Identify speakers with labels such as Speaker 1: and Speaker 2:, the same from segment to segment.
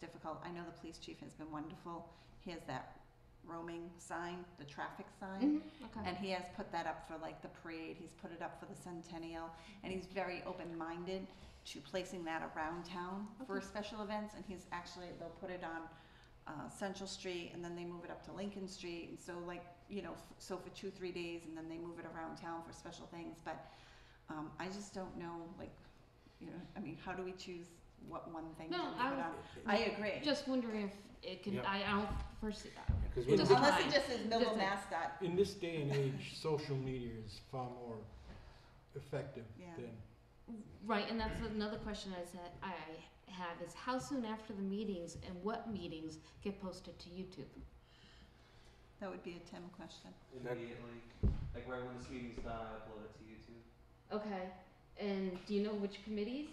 Speaker 1: wonderful. I know the police chief has been wonderful. He has that roaming sign, the traffic sign.
Speaker 2: Okay.
Speaker 1: And he has put that up for like the parade, he's put it up for the centennial, and he's very open-minded to placing that around town for
Speaker 2: Okay.
Speaker 1: special events, and he's actually, they'll put it on uh, Central Street, and then they move it up to Lincoln Street, and so like, you know, f- so for two, three days, and then they move it around town for special things, but um, I just don't know, like, you know, I mean, how do we choose what one thing to
Speaker 2: No,
Speaker 1: put
Speaker 2: I
Speaker 1: on?
Speaker 2: was-
Speaker 1: I agree,
Speaker 2: Just wondering if it can,
Speaker 3: Yep.
Speaker 2: I, I don't foresee that.
Speaker 3: Because
Speaker 2: It doesn't-
Speaker 1: unless it just is Millville
Speaker 2: Just a-
Speaker 1: mascot,
Speaker 3: in this day and age, social media is far more effective
Speaker 1: Yeah.
Speaker 3: than
Speaker 2: Right, and that's another question I said, I have is how soon after the meetings and what meetings get posted to YouTube?
Speaker 1: that would be a Tim question.
Speaker 3: That-
Speaker 4: Immediately, like right when this meeting's done, I upload it to YouTube.
Speaker 2: Okay, and do you know which committees?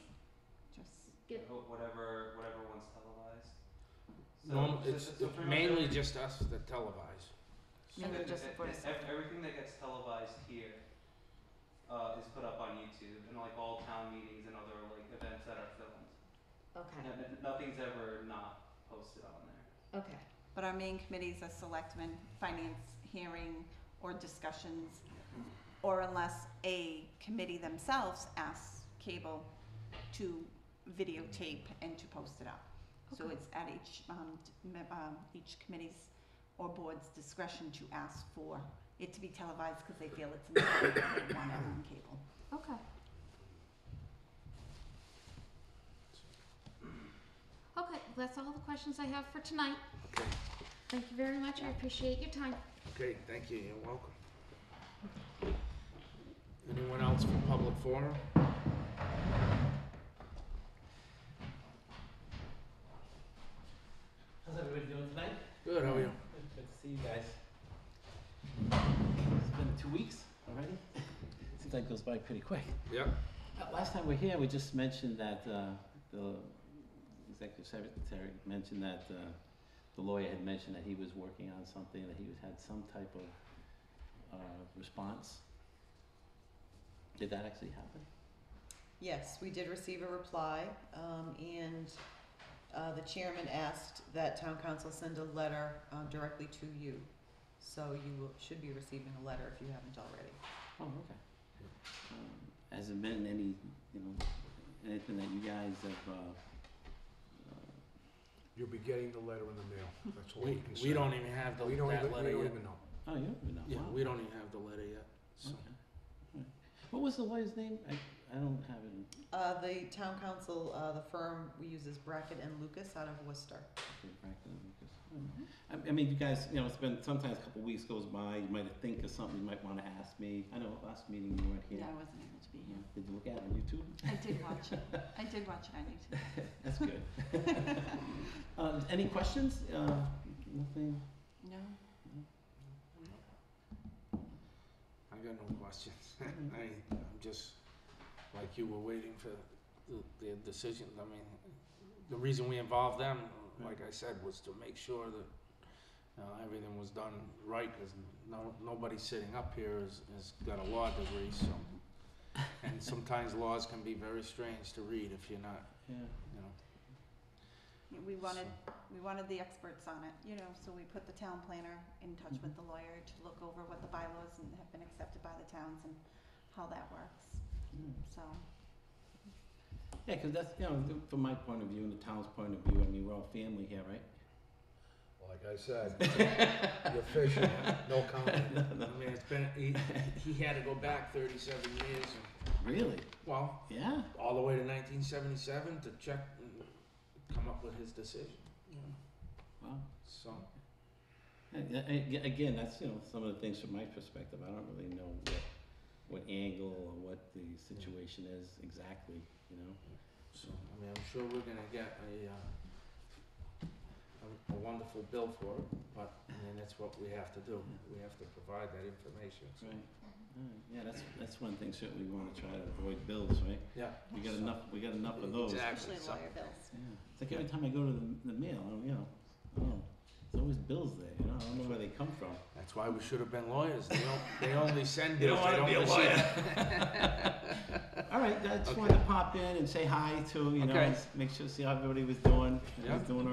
Speaker 1: Just,
Speaker 2: Get-
Speaker 4: Wh- Whatever, whatever one's televised. So,
Speaker 5: Norm,
Speaker 4: so-
Speaker 5: it's
Speaker 4: so- so pretty much
Speaker 5: mainly
Speaker 4: every-
Speaker 5: just us that televise.
Speaker 4: so
Speaker 2: And then
Speaker 4: that-
Speaker 2: just
Speaker 4: that-
Speaker 2: for
Speaker 4: that-
Speaker 2: us.
Speaker 4: ev- Everything that gets televised here, uh, is put up on YouTube and like all town meetings and other like events that are filmed.
Speaker 2: Okay,
Speaker 4: And- and Nothing's ever not posted on there.
Speaker 2: okay.
Speaker 1: But our main committees are selectmen, finance, hearing, or discussions, or unless a committee themselves asks cable to videotape and to post it up. So
Speaker 2: Okay.
Speaker 1: it's at each, um, d- me- um, each committee's or board's discretion to ask for it to be televised because they feel it's important, they want it on cable.
Speaker 2: Okay. Okay, that's all the questions I have for tonight.
Speaker 5: Okay.
Speaker 2: Thank you very much, I appreciate your time.
Speaker 5: Okay, thank you, you're welcome. Anyone else for public forum?
Speaker 4: How's everybody doing tonight?
Speaker 5: Good, how are you?
Speaker 4: Good to see you guys. It's been two weeks already. Seems like it goes by pretty quick.
Speaker 5: Yep.
Speaker 4: Uh, Last time we were here, we just mentioned that uh, the executive secretary mentioned that uh, the lawyer had mentioned that he was working on something, that he was- had some type of uh, response. Did that actually happen?
Speaker 6: Yes, we did receive a reply, um, and, uh, the chairman asked that town council send a letter, um, directly to you. So you will, should be receiving a letter if you haven't already.
Speaker 4: Oh, okay. Um, Has there been any, you know, anything that you guys have, uh, uh,
Speaker 3: you'll be getting the letter in the mail. That's all
Speaker 5: We,
Speaker 3: we can say.
Speaker 5: we don't even have the,
Speaker 3: We don't
Speaker 5: that
Speaker 3: even, we
Speaker 5: letter
Speaker 3: don't
Speaker 5: yet.
Speaker 3: even know.
Speaker 4: oh, you don't even know?
Speaker 5: Yeah,
Speaker 4: Wow.
Speaker 5: we don't even have the letter yet, so.
Speaker 4: Okay. All right. What was the lawyer's name? I, I don't have it. in-
Speaker 6: Uh, the town council, uh, the firm we use is Brackett and Lucas out of Worcester.
Speaker 4: Okay, Franklin Lucas. I, I mean, you guys, you know, it's been sometimes a couple weeks goes by. You might think of something you might want to ask me. I know last meeting you weren't here.
Speaker 1: Yeah, I wasn't able to be
Speaker 4: Yeah.
Speaker 1: here.
Speaker 4: Did you look at it on YouTube?
Speaker 1: I did watch it, I did watch it on YouTube.
Speaker 4: That's good. uh, any questions? Uh, nothing.
Speaker 1: No,
Speaker 5: I got no questions. I, I'm just, like you were waiting for the, the decision, I mean, the reason we involved them, like I said, was to make sure that, uh, everything was done right, cause no, nobody sitting up here is, has got a law degree, so. And sometimes laws can be very strange to read if you're not,
Speaker 4: Yeah.
Speaker 5: you know.
Speaker 1: we wanted
Speaker 5: so.
Speaker 1: we wanted the experts on it, you know, so we put the town planner in touch with
Speaker 6: Mm-hmm.
Speaker 1: the lawyer to look over what the bylaws and have been accepted by the towns and how that works,
Speaker 4: Mm.
Speaker 1: so.
Speaker 4: Yeah, because that's, you know, th- from my point of view and the town's point of view, I mean, we're all family here, right?
Speaker 3: Like I said, you're fishing, no comment.
Speaker 5: I mean, it's been, he, he had to go back thirty-seven years, and,
Speaker 4: Really?
Speaker 5: well,
Speaker 4: Yeah.
Speaker 5: all the way to nineteen seventy-seven to check and come up with his decision, you know,
Speaker 4: Wow.
Speaker 5: so.
Speaker 4: And, uh, ag- Again, that's, you know, some of the things from my perspective, I don't really know what, what angle or what the situation is exactly, you know?
Speaker 5: So, I mean, I'm sure we're gonna get a, uh, a- a wonderful bill for it, but, I mean, that's what we have to do. We have to provide that information, so.
Speaker 4: Right, Alright. yeah, that's, that's one thing certainly we wanna try to avoid bills, right?
Speaker 5: Yeah.
Speaker 4: We got enough, we got enough of those. Yeah,
Speaker 5: Exactly,
Speaker 1: Especially
Speaker 5: so-
Speaker 1: lawyer bills.
Speaker 4: it's like every time I go to the, the mail, I don't- you know, I don't know, there's always bills there, you know, I don't know where they come from.
Speaker 5: that's why we should have been lawyers. They don't, they only send
Speaker 4: You don't
Speaker 5: bills, they
Speaker 4: wanna
Speaker 5: don't
Speaker 4: be a
Speaker 5: receive.
Speaker 4: Alright, I just wanted to pop in and say hi to, you know,
Speaker 5: Okay.
Speaker 4: and s- make sure, see how everybody was doing, and was
Speaker 5: Yeah.
Speaker 4: doing